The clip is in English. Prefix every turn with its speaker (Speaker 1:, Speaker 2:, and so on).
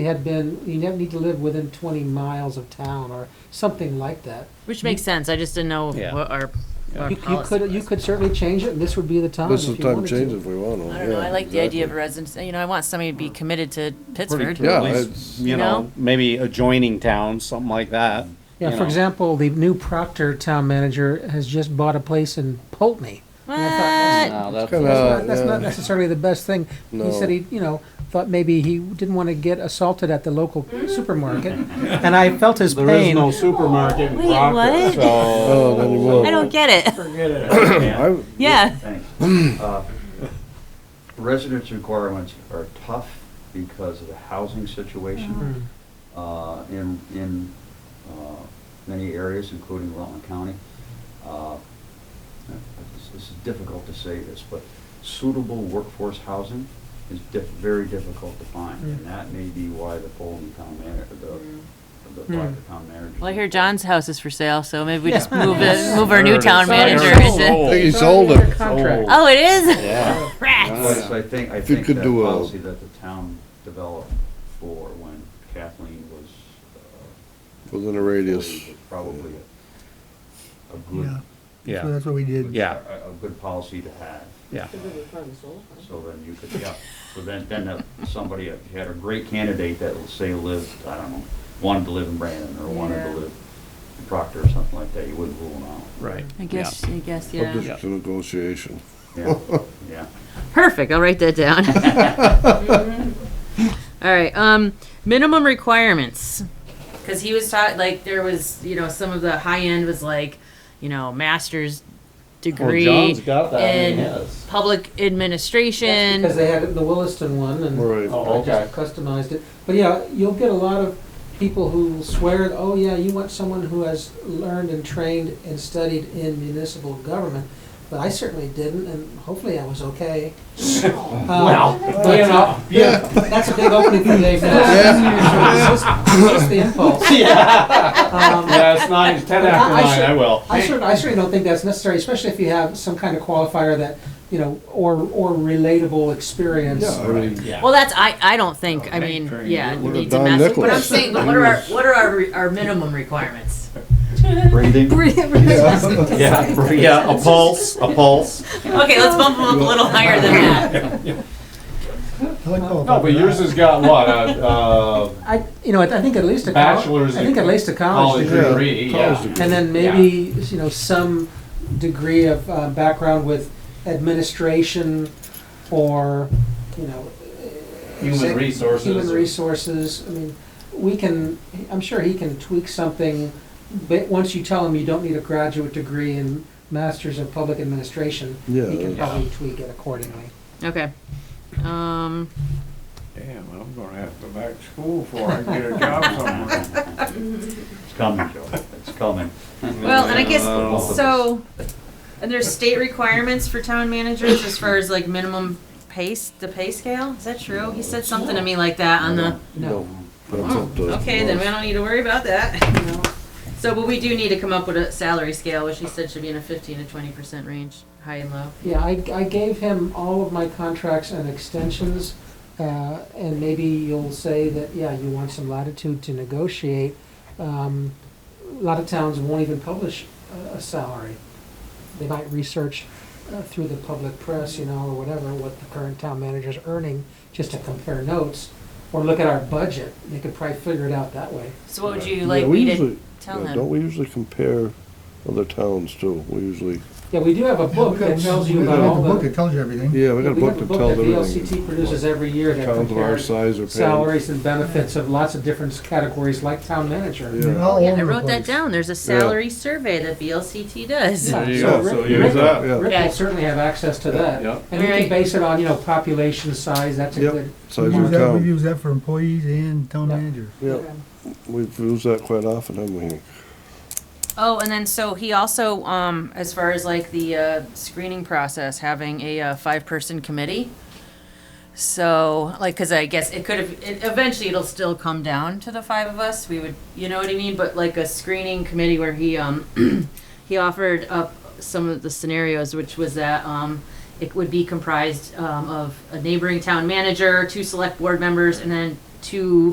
Speaker 1: It had been, you never need to live within twenty miles of town or something like that.
Speaker 2: Which makes sense, I just didn't know
Speaker 3: Yeah.
Speaker 2: what our,
Speaker 3: Yeah.
Speaker 2: our
Speaker 1: You, you
Speaker 2: policy
Speaker 1: could, you
Speaker 2: was.
Speaker 1: could certainly change it, and this would be the time
Speaker 4: This
Speaker 1: if
Speaker 4: is
Speaker 1: you
Speaker 4: time
Speaker 1: wanted
Speaker 4: to
Speaker 1: to.
Speaker 4: change if we want to.
Speaker 2: I don't know,
Speaker 4: yeah,
Speaker 2: I like the idea of
Speaker 4: exactly.
Speaker 2: residence, you know, I want somebody to be committed to Pittsburgh.
Speaker 4: cool. Yeah,
Speaker 3: At least,
Speaker 4: it's-
Speaker 3: You know, maybe adjoining towns, something like that.
Speaker 1: Yeah,
Speaker 3: you
Speaker 1: for
Speaker 3: know.
Speaker 1: example, the new Proctor town manager has just bought a place in Poultney. And I thought, that's-
Speaker 2: What?
Speaker 3: No, that's-
Speaker 4: kinda-
Speaker 1: That's
Speaker 4: Uh,
Speaker 1: not, that's not
Speaker 4: yeah.
Speaker 1: necessarily the best thing. He
Speaker 4: No.
Speaker 1: said he, you know, thought maybe he didn't want to get assaulted at the local supermarket, and I felt his
Speaker 5: There is
Speaker 1: pain.
Speaker 5: no supermarket in
Speaker 2: Wait,
Speaker 5: Proctor,
Speaker 2: what?
Speaker 5: so
Speaker 4: Oh, then you will.
Speaker 2: I don't get it,
Speaker 5: forget it.
Speaker 4: I-
Speaker 2: yeah.
Speaker 6: Thanks. Uh, Residence requirements are tough because of the housing situation uh, in, in uh, many areas, including Rutland County. Uh, this- This is difficult to say this, but suitable workforce housing is diff, very difficult to find. And that may be why the Fulton Town Manager, the, the Proctor Town Manager.
Speaker 2: Well, I hear John's house is for sale, so maybe we just
Speaker 1: Yeah.
Speaker 2: move it, move our new town
Speaker 1: Sorry.
Speaker 2: manager
Speaker 1: Sorry.
Speaker 2: into.
Speaker 4: I think he
Speaker 1: It's
Speaker 4: sold
Speaker 1: already under
Speaker 4: it.
Speaker 1: contract.
Speaker 2: Oh, it is?
Speaker 3: Yeah.
Speaker 2: Rats!
Speaker 6: Yes, I think, I
Speaker 4: If you
Speaker 6: think
Speaker 4: could
Speaker 6: that
Speaker 4: do a-
Speaker 6: policy that the town developed for when Kathleen was, uh,
Speaker 4: Within a radius.
Speaker 6: was probably a- a good,
Speaker 3: Yeah.
Speaker 7: So that's what we did.
Speaker 3: Yeah.
Speaker 6: a, a good policy to have.
Speaker 3: Yeah.
Speaker 6: So then you could, yeah, so then, then if somebody had a great candidate that, let's say, lived, I don't know, wanted to live in Brandon or wanted to
Speaker 2: Yeah.
Speaker 6: live in Proctor or something like that, you wouldn't rule them out.
Speaker 3: Right.
Speaker 2: I guess, I guess, yeah.
Speaker 4: Subject to negotiation.
Speaker 6: Yeah, yeah.
Speaker 2: Perfect, I'll write that down. All right, um, minimum requirements. Cause he was taught, like, there was, you know, some of the high end was like, you know, master's
Speaker 3: Well,
Speaker 2: degree.
Speaker 3: John's got that in
Speaker 2: and-
Speaker 3: his.
Speaker 2: public administration.
Speaker 1: Because they had it in the Williston one, and.
Speaker 4: Right.
Speaker 3: Oh,
Speaker 1: I just customized it. But yeah, you'll get a lot of people who swear, oh yeah, you want someone who has learned and trained and studied in municipal government. But I certainly didn't, and hopefully I was okay. Well. But you know, that's a big opening for Dave now. It's just- it's just the impulse. Um,
Speaker 5: Yeah, it's nine, it's ten after
Speaker 1: I- I
Speaker 5: nine,
Speaker 1: should-
Speaker 5: I will.
Speaker 1: I certainly, I certainly don't think that's necessary, especially if you have some kind of qualifier that, you know, or, or relatable experience.
Speaker 4: Yeah, I mean,
Speaker 5: Yeah.
Speaker 2: Well, that's I. I don't think. I
Speaker 5: Okay,
Speaker 2: mean,
Speaker 5: very
Speaker 2: yeah,
Speaker 5: good.
Speaker 2: it needs a
Speaker 4: Don
Speaker 2: massive. But I'm
Speaker 4: Nicholas.
Speaker 2: saying, but what are our what are our, re- our minimum requirements?
Speaker 6: Breathing?
Speaker 5: Yeah, yeah, a pulse, a pulse.
Speaker 2: Okay, let's bump them up a little higher than that.
Speaker 7: I like Paul.
Speaker 5: No, but yours has got what, a, uh,
Speaker 1: I, you know, I I think at least a col-
Speaker 5: Bachelor's
Speaker 1: I think at
Speaker 5: degree-
Speaker 1: least a college
Speaker 5: college
Speaker 1: degree.
Speaker 5: degree,
Speaker 4: college
Speaker 5: yeah.
Speaker 4: degree.
Speaker 1: And then maybe, you know, some degree of uh, background with administration or, you know. uh,
Speaker 5: Human
Speaker 1: exec-
Speaker 5: resources.
Speaker 1: Human resources, I mean, we can, I'm sure he can tweak something, but once you tell him you don't need a graduate degree in masters of public administration,
Speaker 4: Yeah,
Speaker 1: he can
Speaker 4: that's-
Speaker 1: probably tweak it accordingly.
Speaker 2: Okay. Um.
Speaker 5: Damn, I'm gonna have to go back to school before I get a job somewhere.
Speaker 6: It's coming, Joe, it's coming.
Speaker 2: Well, and I guess
Speaker 4: Uh,
Speaker 6: Oh.
Speaker 2: so. And there's state requirements for town managers as far as like minimum pace, the pay scale. Is that true? He said something to me like that on the.
Speaker 4: No. That's up to.
Speaker 2: Okay, then we don't need to worry about that. So, but we do need to come up with a salary scale, which he said should be in a fifteen to twenty percent range, high and low.
Speaker 1: Yeah, I, I gave him all of my contracts and extensions, uh, and maybe you'll say that, yeah, you want some latitude to negotiate. Um, A lot of towns won't even publish a, a salary. They might research uh, through the public press, you know, or whatever, what the current town manager's earning, just to compare notes, or look at our budget. They could probably figure it out that way.
Speaker 2: So what would you
Speaker 4: Yeah,
Speaker 2: like
Speaker 4: we
Speaker 2: me to
Speaker 4: usually-
Speaker 2: tell
Speaker 4: yeah,
Speaker 2: them?
Speaker 4: Don't we usually compare other towns too? We usually,
Speaker 1: Yeah, we do have a book that tells you
Speaker 7: We
Speaker 1: about
Speaker 7: have
Speaker 1: all
Speaker 7: a book
Speaker 1: the.
Speaker 7: that tells you everything.
Speaker 4: yeah, we got a
Speaker 1: We have
Speaker 4: book
Speaker 1: a
Speaker 4: that
Speaker 1: book
Speaker 4: tells
Speaker 1: that the
Speaker 4: everything.
Speaker 1: LCT produces every year that
Speaker 4: Towns of our
Speaker 1: compares.
Speaker 4: size are paying.
Speaker 1: salaries and benefits of lots of different categories, like town manager.
Speaker 4: Yeah.
Speaker 7: All
Speaker 2: Yeah, I
Speaker 7: over the
Speaker 2: wrote that
Speaker 7: place.
Speaker 2: down. There's a salary survey that BLCT does.
Speaker 1: Yeah.
Speaker 5: There you
Speaker 1: So
Speaker 5: go,
Speaker 1: Rick-
Speaker 5: so
Speaker 1: Rick-
Speaker 5: use that.
Speaker 4: Yeah.
Speaker 1: Rick
Speaker 2: Yeah.
Speaker 1: will certainly have access to that.
Speaker 5: Yep.
Speaker 1: And you can
Speaker 2: Right.
Speaker 1: base it on, you know, population size, that's a
Speaker 4: Yep.
Speaker 1: good.
Speaker 4: Size
Speaker 7: We
Speaker 4: of
Speaker 7: use
Speaker 1: mark.
Speaker 7: that, we
Speaker 4: town.
Speaker 7: use that for employees and town
Speaker 1: Yeah.
Speaker 7: managers.
Speaker 4: Yeah, we've used that quite often, haven't we?
Speaker 2: Oh, and then so he also, um, as far as like the uh, screening process, having a uh, five-person committee. So, like, because I guess it could have, it, eventually it'll still come down to the five of us. We would, you know what I mean? But like a screening committee where he, um, he offered up some of the scenarios, which was that um, it would be comprised um, of a neighboring town manager, two select board members, and then two